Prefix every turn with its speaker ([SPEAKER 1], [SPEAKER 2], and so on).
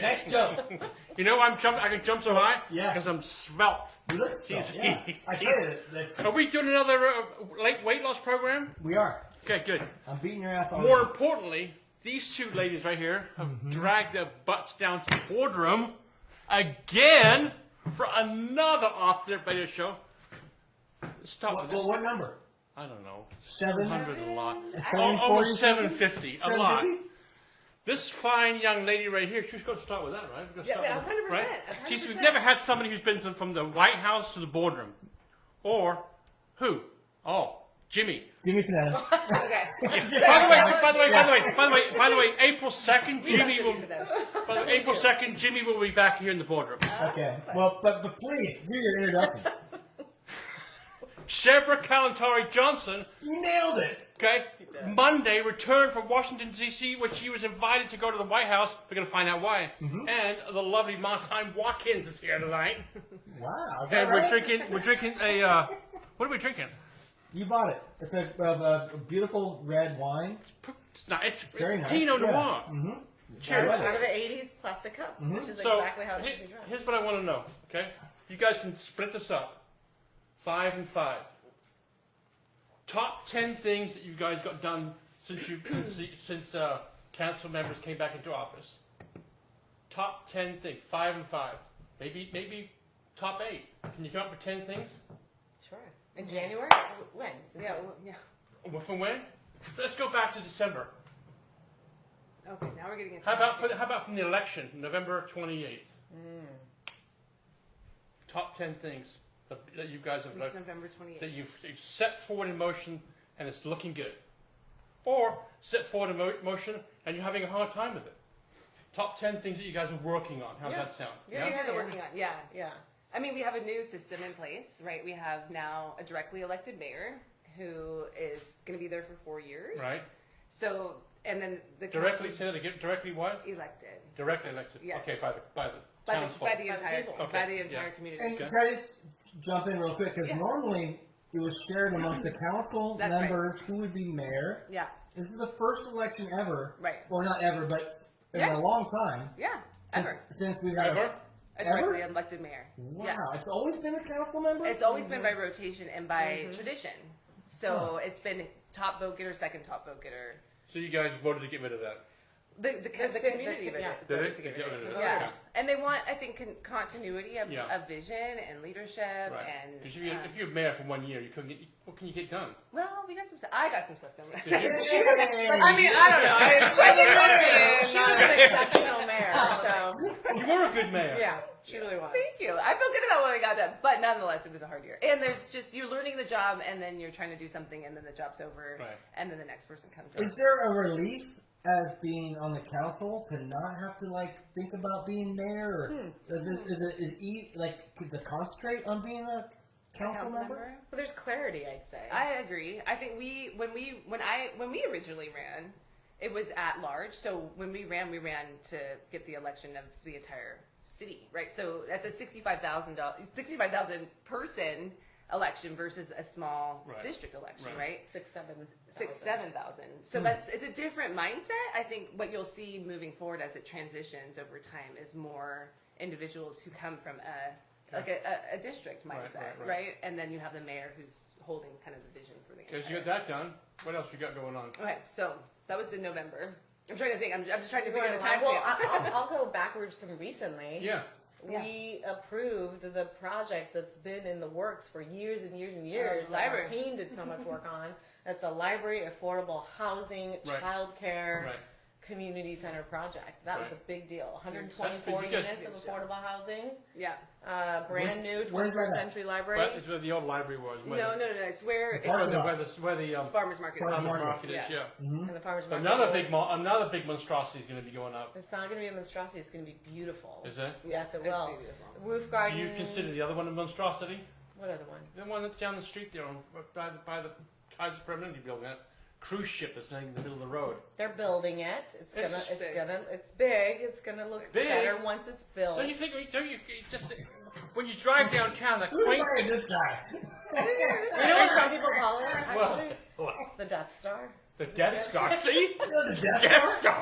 [SPEAKER 1] Next jump.
[SPEAKER 2] You know why I'm jump? I can jump so high.
[SPEAKER 1] Yeah.
[SPEAKER 2] Because I'm svelte.
[SPEAKER 1] You look
[SPEAKER 2] Jeez,
[SPEAKER 1] so, yeah. I tell you, that, that
[SPEAKER 2] Are we doing another uh, late weight loss program?
[SPEAKER 1] we are.
[SPEAKER 2] Okay, good.
[SPEAKER 1] I'm beating your ass all
[SPEAKER 2] More
[SPEAKER 1] day.
[SPEAKER 2] importantly, these two ladies right here have
[SPEAKER 1] Mm-hmm.
[SPEAKER 2] dragged their butts down to the boardroom again for another off their radio show. Stop
[SPEAKER 1] What,
[SPEAKER 2] with this.
[SPEAKER 1] what, what number?
[SPEAKER 2] I don't know.
[SPEAKER 1] Seven?
[SPEAKER 2] 700 a lot.
[SPEAKER 1] Seven
[SPEAKER 2] Al- Almost
[SPEAKER 1] forty?
[SPEAKER 2] 750 a lot.
[SPEAKER 1] 750?
[SPEAKER 2] This fine young lady right here, she's going to start with that, right? We're gonna
[SPEAKER 3] Yeah,
[SPEAKER 2] start
[SPEAKER 3] yeah,
[SPEAKER 2] with-
[SPEAKER 3] 100%,
[SPEAKER 2] right?
[SPEAKER 3] 100%.
[SPEAKER 2] She's, we've never had somebody who's been to- from the White House to the boardroom. Or who? Oh, Jimmy.
[SPEAKER 1] Jimmy Panetta.
[SPEAKER 3] Okay.
[SPEAKER 2] By the way, by the way, by the way, by the way, by the way, April 2nd, Jimmy will. By the way, April 2nd, Jimmy will be back here in the boardroom.
[SPEAKER 1] Okay. Well, but, but please, do your introductions.
[SPEAKER 2] Shebra Kalantari Johnson,
[SPEAKER 1] you nailed it.
[SPEAKER 2] okay, Monday returned from Washington, D.C., where she was invited to go to the White House. We're going to find out why. And the lovely Martine Watkins is here tonight.
[SPEAKER 1] Wow. Is that
[SPEAKER 2] And we're
[SPEAKER 1] right?
[SPEAKER 2] drinking, we're drinking a, uh, what are we drinking?
[SPEAKER 1] You bought it. It's a, a, a beautiful red wine.
[SPEAKER 2] It's not, it's,
[SPEAKER 1] Very
[SPEAKER 2] it's
[SPEAKER 1] nice.
[SPEAKER 2] Pinot
[SPEAKER 1] Yeah.
[SPEAKER 2] Noir.
[SPEAKER 1] Mm-hmm.
[SPEAKER 2] Cheers.
[SPEAKER 3] Out of an 80s plastic cup, which is
[SPEAKER 2] So
[SPEAKER 3] exactly how it
[SPEAKER 2] he-
[SPEAKER 3] should be drunk.
[SPEAKER 2] here's what I want to know. Okay, you guys can split this up, five and five. Top ten things that you guys got done since you since, the- since uh, council members came back into office. Top ten things, five and five. Maybe maybe top eight. Can you come up with ten things?
[SPEAKER 3] Sure. In January? When? Yeah, yeah.
[SPEAKER 2] From when? Let's go back to December.
[SPEAKER 3] Okay, now we're getting into
[SPEAKER 2] How about for, how about from the election, November twenty eighth?
[SPEAKER 4] Hmm.
[SPEAKER 2] Top ten things that, that you guys have done.
[SPEAKER 3] November 28th.
[SPEAKER 2] that you've, you've set forward in motion and it's looking good. Or set forward in mo- motion and you're having a hard time with it. Top 10 things that you guys are working on. How's
[SPEAKER 3] Yeah.
[SPEAKER 2] that sound?
[SPEAKER 4] Yeah, yeah, they're working on. Yeah,
[SPEAKER 3] Yeah.
[SPEAKER 4] I mean, we have a new system in place, right? We have now a directly elected mayor who is going to be there for four years,
[SPEAKER 2] Right?
[SPEAKER 4] So, and then the
[SPEAKER 2] Directly,
[SPEAKER 4] council
[SPEAKER 2] say that again. Directly what?
[SPEAKER 4] elected
[SPEAKER 2] Directly elected.
[SPEAKER 4] Yeah.
[SPEAKER 2] Okay, by the, by the
[SPEAKER 4] by the,
[SPEAKER 2] townsfolk.
[SPEAKER 4] by the entire
[SPEAKER 3] people.
[SPEAKER 2] Okay,
[SPEAKER 4] by the entire
[SPEAKER 2] yeah.
[SPEAKER 4] community.
[SPEAKER 1] And
[SPEAKER 2] Okay.
[SPEAKER 1] can I just jump in real quick? Because
[SPEAKER 4] Yeah.
[SPEAKER 1] normally it was shared amongst the council
[SPEAKER 4] That's right.
[SPEAKER 1] members who would be mayor.
[SPEAKER 4] yeah,
[SPEAKER 1] This is the first election ever.
[SPEAKER 4] Right.
[SPEAKER 1] Well, not ever, but in
[SPEAKER 4] Yes.
[SPEAKER 1] a long time.
[SPEAKER 4] yeah,
[SPEAKER 1] since-
[SPEAKER 4] ever
[SPEAKER 1] Since we've had.
[SPEAKER 2] Ever?
[SPEAKER 4] a
[SPEAKER 1] Ever?
[SPEAKER 4] directly elected mayor.
[SPEAKER 1] Wow.
[SPEAKER 4] Yeah.
[SPEAKER 1] It's always been a council member?
[SPEAKER 4] It's always been by rotation and by tradition. So it's been top vote getter, second top vote getter.
[SPEAKER 2] So you guys voted to get rid of that.
[SPEAKER 4] The, the,
[SPEAKER 3] That's
[SPEAKER 4] the
[SPEAKER 3] it,
[SPEAKER 4] community
[SPEAKER 3] the-
[SPEAKER 4] voted-
[SPEAKER 3] yeah.
[SPEAKER 2] Did
[SPEAKER 4] voted
[SPEAKER 2] it?
[SPEAKER 4] to get
[SPEAKER 2] They
[SPEAKER 4] rid
[SPEAKER 2] got
[SPEAKER 4] of
[SPEAKER 2] rid
[SPEAKER 4] it.
[SPEAKER 2] of it,
[SPEAKER 4] Yeah.
[SPEAKER 2] okay.
[SPEAKER 4] And they want, I think, con- continuity of,
[SPEAKER 2] Yeah.
[SPEAKER 4] of vision and leadership
[SPEAKER 2] Right.
[SPEAKER 4] and.
[SPEAKER 2] Because if, you,
[SPEAKER 4] uh,
[SPEAKER 2] if you're mayor for one year, you couldn't get, what can you get done?
[SPEAKER 4] Well, we got some stuff. I got some stuff done.
[SPEAKER 2] Did you?
[SPEAKER 4] I mean, I Oh. don't know. It's quite the
[SPEAKER 3] Yeah.
[SPEAKER 4] She was an exceptional mayor, so
[SPEAKER 2] you were a good mayor.
[SPEAKER 3] Yeah, she really was.
[SPEAKER 4] thank you. I feel good about what I got done, but nonetheless, it was a hard year. And there's just you're learning the job, and then you're trying to do something, and then the job's over,
[SPEAKER 2] Right.
[SPEAKER 4] and then the next person comes in.
[SPEAKER 1] Is there a relief as being on the council to not have to like think about being mayor?
[SPEAKER 4] Hmm.
[SPEAKER 1] Or is, it, is, it, is e like could the concentrate on being a council,
[SPEAKER 4] Council
[SPEAKER 1] member?
[SPEAKER 4] member?
[SPEAKER 3] Well, there's clarity, I'd say.
[SPEAKER 4] I agree. I think we when we when I when we originally ran, it was at large. So when we ran, we ran to get the election of the entire city, right? So that's a sixty-five thousand dollars, sixty-five thousand person election versus a small
[SPEAKER 2] Right.
[SPEAKER 4] district election,
[SPEAKER 2] Right.
[SPEAKER 4] right?
[SPEAKER 3] six, seven.
[SPEAKER 4] six
[SPEAKER 3] thousand.
[SPEAKER 4] seven thousand
[SPEAKER 2] Hmm.
[SPEAKER 4] so that's it's a different mindset i think what you'll see moving forward as it transitions over time is more individuals who come from a like a, a, a district
[SPEAKER 2] Right,
[SPEAKER 4] mindset right,
[SPEAKER 2] right, right.
[SPEAKER 4] and then you have the mayor who's holding kind of the vision for the
[SPEAKER 2] Because you
[SPEAKER 4] entire-
[SPEAKER 2] got that done. What else you got going on?
[SPEAKER 4] okay so that was in november i'm trying to think i'm, I'm just trying to figure out the time
[SPEAKER 3] Well, I- I'll, I'll go backwards from recently.
[SPEAKER 2] Yeah.
[SPEAKER 4] Yeah.
[SPEAKER 3] We approved the project that's been in the works for years and years and
[SPEAKER 2] Oh,
[SPEAKER 3] years.
[SPEAKER 4] the
[SPEAKER 3] that our
[SPEAKER 4] library.
[SPEAKER 3] team did so much work on. That's the library, affordable housing,
[SPEAKER 2] Right.
[SPEAKER 3] childcare,
[SPEAKER 2] Right.
[SPEAKER 3] community center project. That was
[SPEAKER 2] Right.
[SPEAKER 3] a big deal.
[SPEAKER 2] That's big.
[SPEAKER 3] 124
[SPEAKER 2] You guys-
[SPEAKER 3] units of affordable housing,
[SPEAKER 4] yeah
[SPEAKER 3] uh, brand new
[SPEAKER 1] where's
[SPEAKER 3] 21st
[SPEAKER 1] that at?
[SPEAKER 3] century library.
[SPEAKER 2] Well, it's where the old library was.
[SPEAKER 4] no
[SPEAKER 2] Where
[SPEAKER 4] no
[SPEAKER 2] the,
[SPEAKER 4] no it's where it's
[SPEAKER 2] Where
[SPEAKER 1] Farmers
[SPEAKER 2] the, where the, where the um,
[SPEAKER 4] farmers market
[SPEAKER 1] Farmers
[SPEAKER 2] farmer's market
[SPEAKER 1] market.
[SPEAKER 2] is,
[SPEAKER 4] Yeah.
[SPEAKER 2] yeah.
[SPEAKER 3] and the farmers market.
[SPEAKER 2] Another big, mon- another big monstrosity is going to be going up.
[SPEAKER 3] It's not going to be a monstrosity. It's going to be beautiful.
[SPEAKER 2] Is it?
[SPEAKER 3] Yes, it
[SPEAKER 4] It's
[SPEAKER 3] will.
[SPEAKER 4] gonna be beautiful.
[SPEAKER 3] Roof garden.
[SPEAKER 2] Do
[SPEAKER 4] Mm.
[SPEAKER 2] you consider the other one a monstrosity?
[SPEAKER 3] what other one?
[SPEAKER 2] The one that's down the street there, on, by the by the Kaiser Permanente building, that cruise ship that's laying in the middle of the road.
[SPEAKER 3] They're building it. It's gonna. It's,
[SPEAKER 4] big.
[SPEAKER 3] gonna. It's big. It's gonna look
[SPEAKER 2] Big?
[SPEAKER 3] better once it's built.
[SPEAKER 2] Don't you think? Don't you it just when you drive downtown that
[SPEAKER 1] Who
[SPEAKER 2] quaint?
[SPEAKER 1] invited this guy?
[SPEAKER 3] You know what some people call it? Actually,
[SPEAKER 2] Well, well,
[SPEAKER 3] the Death Star.
[SPEAKER 2] the Death Star. See,
[SPEAKER 1] You know the death
[SPEAKER 2] Death Star.